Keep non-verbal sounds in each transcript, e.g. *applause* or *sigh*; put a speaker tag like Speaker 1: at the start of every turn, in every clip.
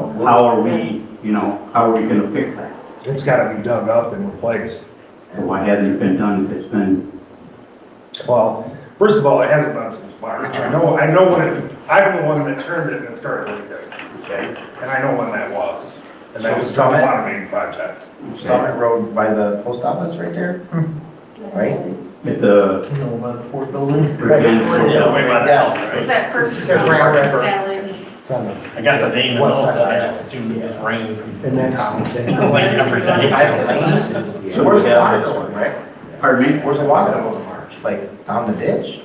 Speaker 1: how are we, you know, how are we gonna fix that?
Speaker 2: It's gotta be dug up and replaced.
Speaker 1: So why hasn't it been done if it's been,
Speaker 2: Well, first of all, it hasn't been since March. I know, I know when it, I'm the one that turned it and it started leaking,
Speaker 3: Okay,
Speaker 2: and I know when that was. And that
Speaker 3: So
Speaker 2: was some
Speaker 3: Summit?
Speaker 2: automated project.
Speaker 3: Summit Road by the post office right there, right?
Speaker 1: at the,
Speaker 4: You know, by the Ford building.
Speaker 1: Right.
Speaker 5: Way by the house,
Speaker 6: Is
Speaker 5: right?
Speaker 6: that first?
Speaker 4: Yeah,
Speaker 6: round
Speaker 3: right.
Speaker 6: valley?
Speaker 4: It's on the,
Speaker 5: I guess I didn't even
Speaker 4: West
Speaker 5: know,
Speaker 4: side.
Speaker 5: so I just assumed it was rain.
Speaker 4: and that's.
Speaker 3: *laughs*
Speaker 5: *laughs* Like every day.
Speaker 3: I have lanes.
Speaker 1: So
Speaker 3: Where's
Speaker 1: we
Speaker 3: the
Speaker 1: have
Speaker 3: water
Speaker 1: this
Speaker 3: going, right?
Speaker 1: pardon me?
Speaker 3: Where's the water that goes in March? Like, down the ditch?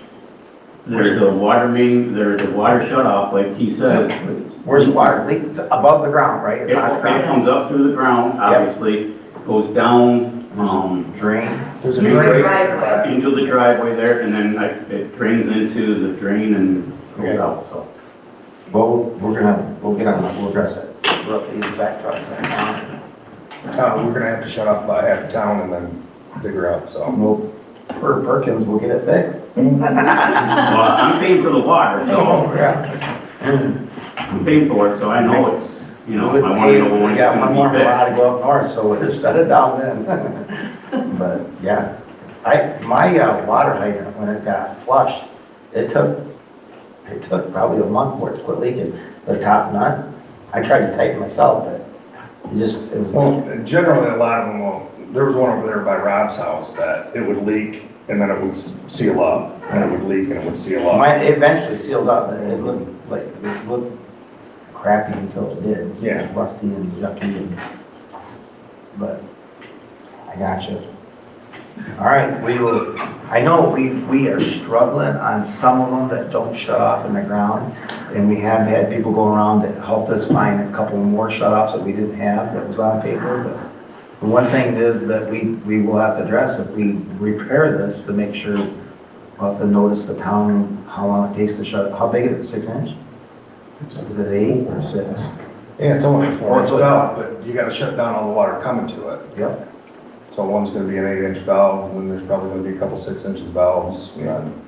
Speaker 1: There's a water main, there's a water shut off, like he said. It's-
Speaker 3: Where's the water? Leaks above the ground, right?
Speaker 1: It
Speaker 3: It's on the
Speaker 1: it
Speaker 3: ground.
Speaker 1: comes up through the ground, obviously, goes down, um,
Speaker 3: Drain.
Speaker 4: There's a
Speaker 2: Drain
Speaker 4: great,
Speaker 2: right
Speaker 6: Driveway.
Speaker 1: into the driveway there, and then like, it drains into the drain and goes
Speaker 3: Okay.
Speaker 1: out, so.
Speaker 3: Well, we're gonna, we'll get on, that. we'll address it. We'll have to use the back trucks. and
Speaker 2: Uh, we're gonna have to shut off about half the town and then figure out, so.
Speaker 3: We'll, per Perkins, we'll get it fixed.
Speaker 1: Well, I'm paying for the water, so
Speaker 3: Yeah.
Speaker 1: I'm paying for it, so I know it's, you know,
Speaker 3: We
Speaker 1: I want to know when
Speaker 3: We
Speaker 1: it's
Speaker 3: got one more
Speaker 1: gonna be fixed.
Speaker 3: mile to go up north, so let's shut it down then.
Speaker 1: *laughs*
Speaker 3: But, yeah, I, my uh, water hydrant, when it got flushed, it took, it took probably a month for it to quit leaking. The top nut, I tried to tighten myself, but it just, it was,
Speaker 2: Well, generally, a lot of them will, there was one over there by Rob's house that it would leak and then it would s- seal up, and it would leak and it would seal up.
Speaker 3: mine it eventually sealed up, and it looked like, it looked crappy until it did. It
Speaker 2: Yeah.
Speaker 3: was Rusty and yucky and, but I got you. All right, we will, I know we, we are struggling on some of them that don't shut off in the ground. And we have had people go around that helped us find a couple more shut offs that we didn't have that was on paper. But the one thing is that we, we will have to address if we repair this to make sure we'll have to notice the town, how long it takes to shut, how big is it, six inch? Is it eight or six?
Speaker 2: Yeah, it's only
Speaker 3: Oh,
Speaker 2: four inch
Speaker 3: it's a-
Speaker 2: valve, but you gotta shut down all the water coming to it.
Speaker 3: Yep,
Speaker 2: So one's gonna be an eight inch valve, and then there's probably gonna be a couple six inch valves. and then-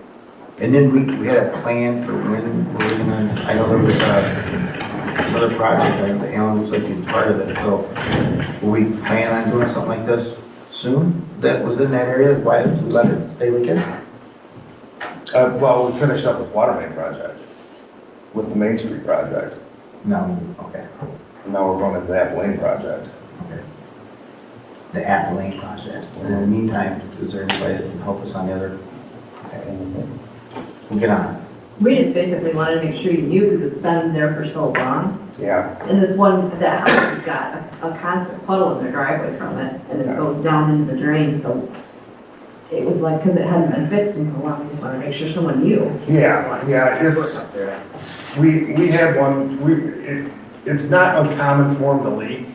Speaker 3: and then we, we had a plan for when, we're gonna, I know there was a, another project, like the Allen was like he's part of it, so will we plan on doing something like this soon? That was in that area, why did we let it stay leaking?
Speaker 2: Uh, well, we finished up with water main project, with the Main Street project,
Speaker 3: No, okay,
Speaker 2: and now we're going into that lane project.
Speaker 3: the Apple Lane project, and in the meantime, is there anybody that can help us on the other? okay, We'll get on it.
Speaker 7: We just basically wanted to make sure you knew because it's been there for so long.
Speaker 2: Yeah,
Speaker 7: And this one, that house has got a- a constant puddle in their driveway from it and it goes down into the drain, so it was like, because it hadn't been fixed in so long, we just wanted to make sure someone knew.
Speaker 2: yeah, yeah, it's, we, we had one, we, it, it's not uncommon for them to leak,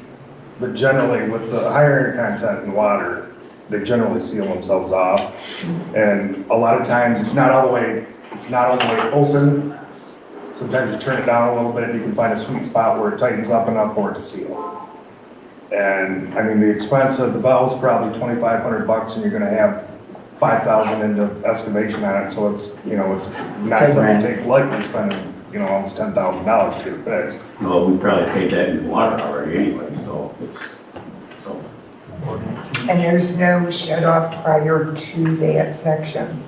Speaker 2: but generally with the higher iron content in water, they generally seal themselves off. And a lot of times, it's not all the way, it's not all the way open. Sometimes you turn it down a little bit, you can find a sweet spot where it tightens up enough for it to seal. And, I mean, the expense of the valve's probably twenty-five hundred bucks, and you're gonna have five thousand into estimation on it, so it's, you know, it's not
Speaker 3: Okay,
Speaker 2: something
Speaker 3: Brian.
Speaker 2: to take lightly, spending, you know, almost ten thousand dollars to get fixed.
Speaker 1: Well, we probably paid that in water already anyway, so it's, so.
Speaker 8: And there's no shut off prior to that section.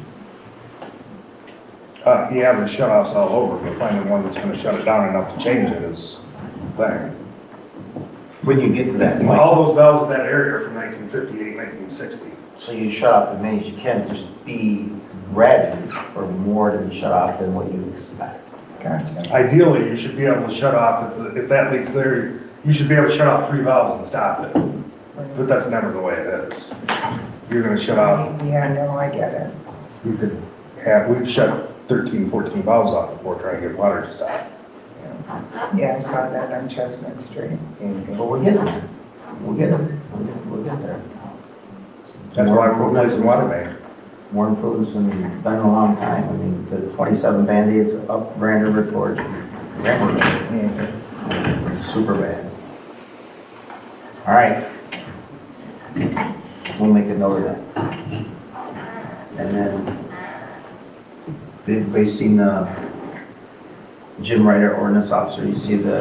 Speaker 2: Uh, you have the shut offs all over, but finding one that's gonna shut it down enough to change it is the thing.
Speaker 3: When you get to that point.
Speaker 2: All those valves in that area are from 1958, 1960.
Speaker 3: So you shut off as many as you can, just be ready for more to be shut off than what you expect.
Speaker 8: Gotcha.
Speaker 2: Ideally, you should be able to shut off, if the- if that leaks there, you should be able to shut off three valves and stop it. But that's never the way it is. You're gonna shut off,
Speaker 8: Yeah, no, I get it.
Speaker 2: you could have, we've shut 13, 14 valves off before trying to get water to stop.
Speaker 8: Yeah, I saw that on Chestnut Street.
Speaker 3: But we're getting there. We'll get there. We'll get- We'll get there.
Speaker 2: That's why we're replacing water main.
Speaker 3: More improvements than we've done in a long time. I mean, the 27 Band-Aids up Grand River towards Grand River. Super bad. All right. We'll make a note of that. And then, did anybody seen the Jim Ryder ordinance officer? You see the